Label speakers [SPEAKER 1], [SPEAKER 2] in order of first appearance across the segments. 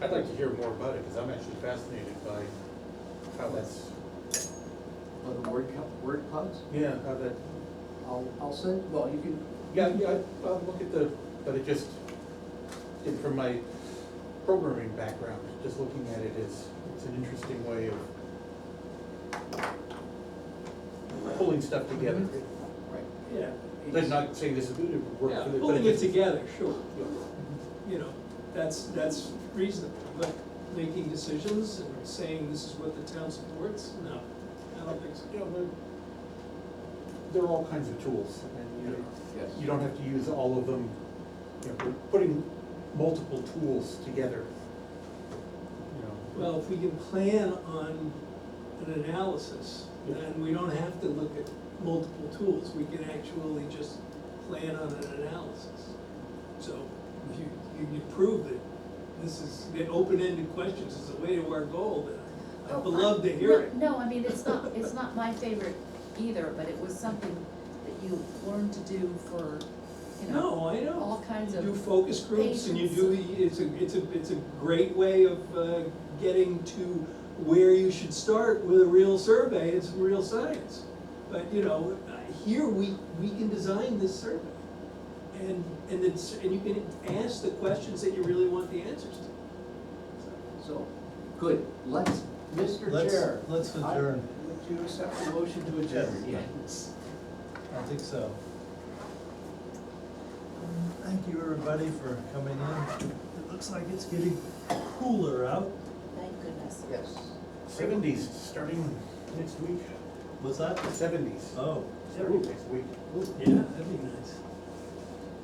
[SPEAKER 1] I'd like to hear more about it, because I'm actually fascinated by how that's,
[SPEAKER 2] Well, the word, co- word clouds,
[SPEAKER 1] yeah, how that,
[SPEAKER 2] I'll, I'll send, well, you can,
[SPEAKER 1] yeah, yeah, I- I'll look at the, but it just, it- from my programming background, just looking at it is, it's an interesting way of pulling stuff together.
[SPEAKER 3] Mm-hmm.
[SPEAKER 2] right.
[SPEAKER 3] Yeah.
[SPEAKER 1] I'm not saying this is good, it would work for the, but it
[SPEAKER 3] Pulling it
[SPEAKER 1] just.
[SPEAKER 3] together, sure,
[SPEAKER 1] Yeah.
[SPEAKER 3] you know, that's, that's reasonable, but making decisions and saying this is what the town supports, no, I don't think so.
[SPEAKER 1] you know, there- there are all kinds of tools, and you know,
[SPEAKER 2] Yes.
[SPEAKER 1] you don't have to use all of them. You know, we're putting multiple tools together, you know.
[SPEAKER 3] Well, if we can plan on an analysis, then we don't have to look at multiple tools, we can actually just plan on an analysis. So if you, you can prove that this is, the open-ended questions is the way to our goal, then
[SPEAKER 4] Oh,
[SPEAKER 3] I'd love
[SPEAKER 4] I-
[SPEAKER 3] to hear it.
[SPEAKER 4] No, no, I mean, it's not, it's not my favorite either, but it was something that you learned to do for, you know,
[SPEAKER 3] No, I know.
[SPEAKER 4] all kinds
[SPEAKER 3] You do
[SPEAKER 4] of,
[SPEAKER 3] focus groups and you do, the- it's a, it's a, it's a great way of uh, getting to where you should start with a real survey, it's real science. But, you know, uh, here we, we can design this survey. And, and it's, and you can ask the questions that you really want the answers to.
[SPEAKER 2] So, good, let's, Mr.
[SPEAKER 5] Let's-
[SPEAKER 2] Chair.
[SPEAKER 5] let's
[SPEAKER 2] I-
[SPEAKER 5] adjourn.
[SPEAKER 2] Would you accept the motion to adjourn? Yes.
[SPEAKER 5] I think so. Thank you, everybody, for coming in. It looks like it's getting cooler out.
[SPEAKER 4] thank goodness.
[SPEAKER 2] Yes.
[SPEAKER 1] Seventies, starting next week,
[SPEAKER 5] Was that?
[SPEAKER 1] seventies,
[SPEAKER 3] Uh,
[SPEAKER 5] Oh,
[SPEAKER 1] starting next week.
[SPEAKER 5] yeah, that'd be nice.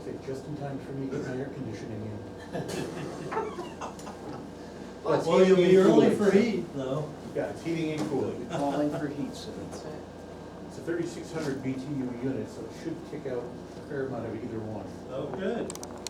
[SPEAKER 1] Say, just in time for me to get my air conditioning in.
[SPEAKER 2] But
[SPEAKER 5] Well, you'll be
[SPEAKER 1] heating and
[SPEAKER 5] early for
[SPEAKER 1] cooling.
[SPEAKER 5] heat, though.
[SPEAKER 1] Yeah, it's heating and cooling.
[SPEAKER 2] calling for heat soon.
[SPEAKER 1] It's a thirty-six hundred BTU unit, so it should kick out a fair amount of either one.
[SPEAKER 5] Oh, good.